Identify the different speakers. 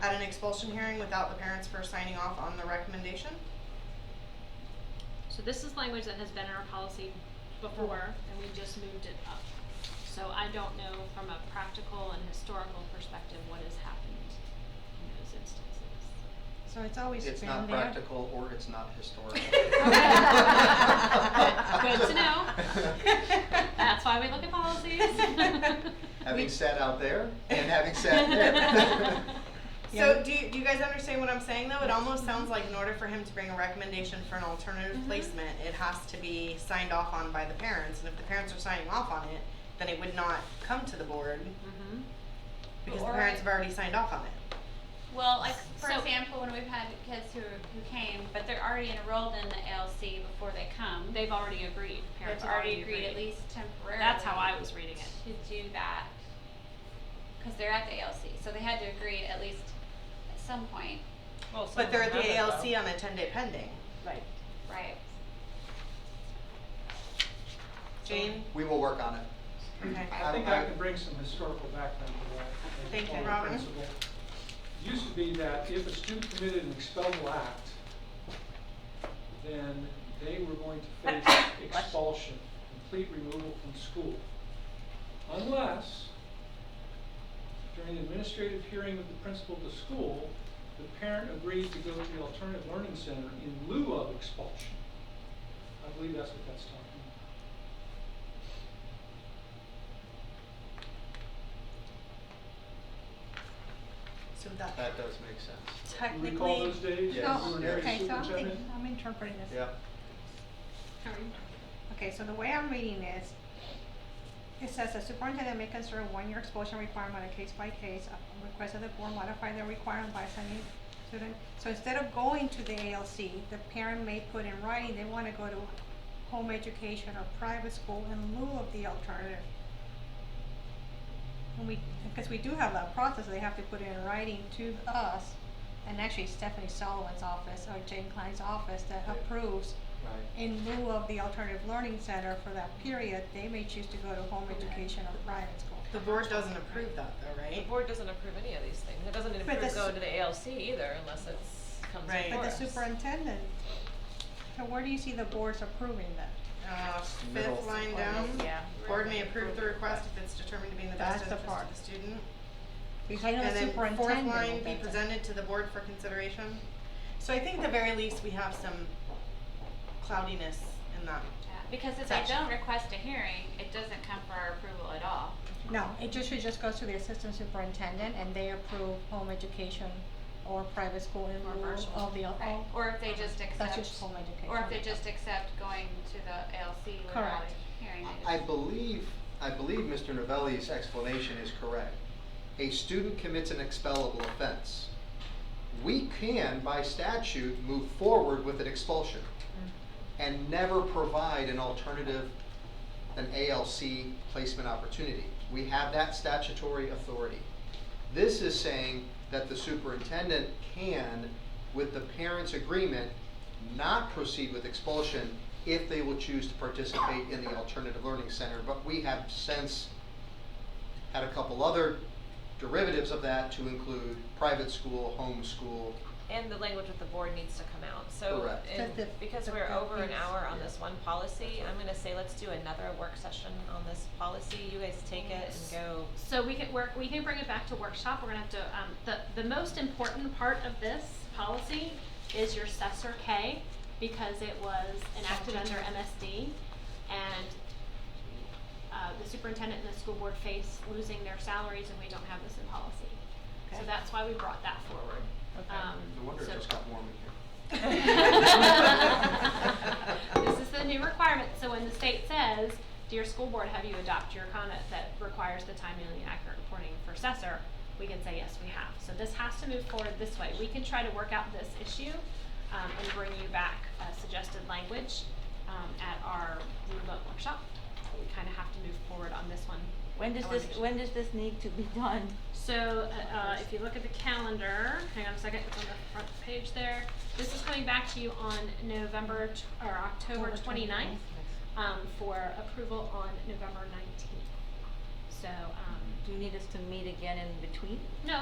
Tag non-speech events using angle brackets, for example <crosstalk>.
Speaker 1: at an expulsion hearing without the parents first signing off on the recommendation.
Speaker 2: So this is language that has been in our policy before, and we just moved it up. So I don't know from a practical and historical perspective what has happened in those instances.
Speaker 1: So it's always been there.
Speaker 3: It's not practical or it's not <laughs> historical.
Speaker 1: Okay.
Speaker 2: Good- good to
Speaker 3: <laughs>
Speaker 2: know. That's why we look at policies.
Speaker 3: <laughs> Having sat out there and
Speaker 2: <laughs>
Speaker 3: having sat <laughs> here.
Speaker 1: So
Speaker 4: Yeah.
Speaker 1: do you, do you guys understand what I'm saying though? It almost sounds like in order for him to bring a recommendation for an alternative
Speaker 2: Mhm.
Speaker 1: placement, it has to be signed off on by the parents. And if the parents are signing off on it, then it would not come to the board
Speaker 2: Mhm.
Speaker 1: because the
Speaker 5: Or-
Speaker 1: parents have already signed off on it.
Speaker 5: Well, like for
Speaker 2: So-
Speaker 5: example, when we've had kids who who came, but they're already enrolled in the ALC before they come.
Speaker 2: They've already agreed,
Speaker 5: They've
Speaker 2: parents have
Speaker 5: already
Speaker 2: already agreed.
Speaker 5: agreed, at least temporarily.
Speaker 2: That's how I was reading it.
Speaker 5: To do that, because they're at the ALC, so they had to agree at least at some point,
Speaker 6: Well, some
Speaker 1: But they're at
Speaker 6: of them
Speaker 1: the
Speaker 6: haven't,
Speaker 1: ALC
Speaker 6: though.
Speaker 1: on a ten day pending.
Speaker 6: Right.
Speaker 5: right?
Speaker 1: Jane?
Speaker 3: We will work on it.
Speaker 1: Okay.
Speaker 3: I-
Speaker 7: I think I
Speaker 3: I-
Speaker 7: can bring some historical background to that. as a
Speaker 1: Thank you,
Speaker 7: former
Speaker 1: Robert.
Speaker 7: principal. Used to be that if a student committed an expellable act, then they were going to face
Speaker 1: <coughs>
Speaker 7: expulsion, complete removal from school. Unless, during the administrative hearing of the principal of the school, the parent agreed to go to the alternative learning center in lieu of expulsion. I believe that's what that's talking about.
Speaker 1: So that
Speaker 3: That does make sense.
Speaker 7: Do
Speaker 1: technically.
Speaker 7: you recall those days?
Speaker 3: Yes.
Speaker 7: when we were
Speaker 3: So,
Speaker 7: near the
Speaker 4: Okay, so I'm
Speaker 7: superintendent?
Speaker 4: thinking, I'm interpreting this.
Speaker 3: Yeah.
Speaker 4: Okay, so the way I'm reading this, it says the superintendent may consider a one-year expulsion requirement on a case-by-case, upon request of the board modify the requirement by sending student. So instead of going to the ALC, the parent may put in writing they wanna go to home education or private school in lieu of the alternative. And we, because we do have that process, they have to put it in writing to us, and actually Stephanie Sullivan's office or Jane Klein's office that
Speaker 3: Right.
Speaker 4: approves
Speaker 3: Right.
Speaker 4: in lieu of the alternative learning center for that period, they may choose to go to home education or private school.
Speaker 1: The board doesn't approve that though,
Speaker 6: The
Speaker 1: right?
Speaker 6: board doesn't approve any of these things. It doesn't
Speaker 4: But the
Speaker 6: approve
Speaker 4: su-
Speaker 6: going to the ALC either unless it's comes
Speaker 1: Right.
Speaker 6: before
Speaker 4: But the
Speaker 6: us.
Speaker 4: superintendent, so where do you see the boards approving that?
Speaker 1: Uh,
Speaker 3: Middle.
Speaker 1: fifth line down.
Speaker 6: Yeah.
Speaker 1: Board may approve the request if it's determined to be in the best
Speaker 4: That's the
Speaker 1: interest of
Speaker 4: part.
Speaker 1: the student.
Speaker 4: You're talking about
Speaker 1: And then fourth
Speaker 4: superintendent,
Speaker 1: line, be
Speaker 4: that's it.
Speaker 1: presented to the board for consideration. So I think at the very least, we have some cloudiness in that.
Speaker 5: Yeah, Because if they
Speaker 1: Gotcha.
Speaker 5: don't request a hearing, it doesn't come for our approval at all.
Speaker 4: No, it just should just goes to the assistant superintendent and they approve home education or private school in
Speaker 5: Or
Speaker 4: lieu
Speaker 5: virtual.
Speaker 4: of the, al-
Speaker 5: Right, or if
Speaker 2: Uh-huh.
Speaker 5: they just
Speaker 4: that's
Speaker 5: accept,
Speaker 4: just home education.
Speaker 5: or if they just accept going to the ALC without
Speaker 4: Correct.
Speaker 5: a hearing. they
Speaker 3: I
Speaker 5: just-
Speaker 3: believe, I believe Mr. Novelli's explanation is correct. A student commits an expellable offense. We can, by statute, move forward with an expulsion and never provide an alternative, an ALC placement opportunity. We have that statutory authority. This is saying that the superintendent can, with the parent's agreement, not proceed with expulsion if they will choose to participate in the alternative learning center. But we have since had a couple other derivatives of that to include private school, home school.
Speaker 6: And the language with the board needs to come out. So,
Speaker 3: Correct.
Speaker 6: and
Speaker 4: That the-
Speaker 6: because
Speaker 4: that
Speaker 6: we're
Speaker 4: the
Speaker 6: over an
Speaker 4: things-
Speaker 6: hour on
Speaker 3: Yeah.
Speaker 6: this one policy, I'm gonna say let's do another work session on this policy. You guys take it and go.
Speaker 2: So we can work, we can bring it back to workshop, we're gonna have to, um, the, the most important part of this policy is your Cessor K, because it was enacted under MSD, and, uh, the superintendent and the school board face losing their salaries, and we don't have this in policy. So
Speaker 4: Okay.
Speaker 2: that's why we brought that forward.
Speaker 6: Okay.
Speaker 2: Um,
Speaker 3: No wonder it
Speaker 2: so-
Speaker 3: just got warm in here.
Speaker 2: This is the new requirement, so when the state says, dear school board, have you adopted your conduct that requires the timely and accurate reporting for assessor? We can say, yes, we have, so this has to move forward this way, we can try to work out this issue, um, and bring you back a suggested language, um, at our remote workshop. We kinda have to move forward on this one.
Speaker 8: When does
Speaker 2: I wanna
Speaker 8: this,
Speaker 2: make sure-
Speaker 8: when does this need to be done?
Speaker 2: so, uh, uh, if you look at the calendar, hang on a second, it's on the front page there. This is coming back to you on November, t- or October
Speaker 4: October
Speaker 2: 29th,
Speaker 4: 29th.
Speaker 2: um, for approval on November nineteenth. So, um,
Speaker 8: Do you need us to meet again in between?
Speaker 2: no,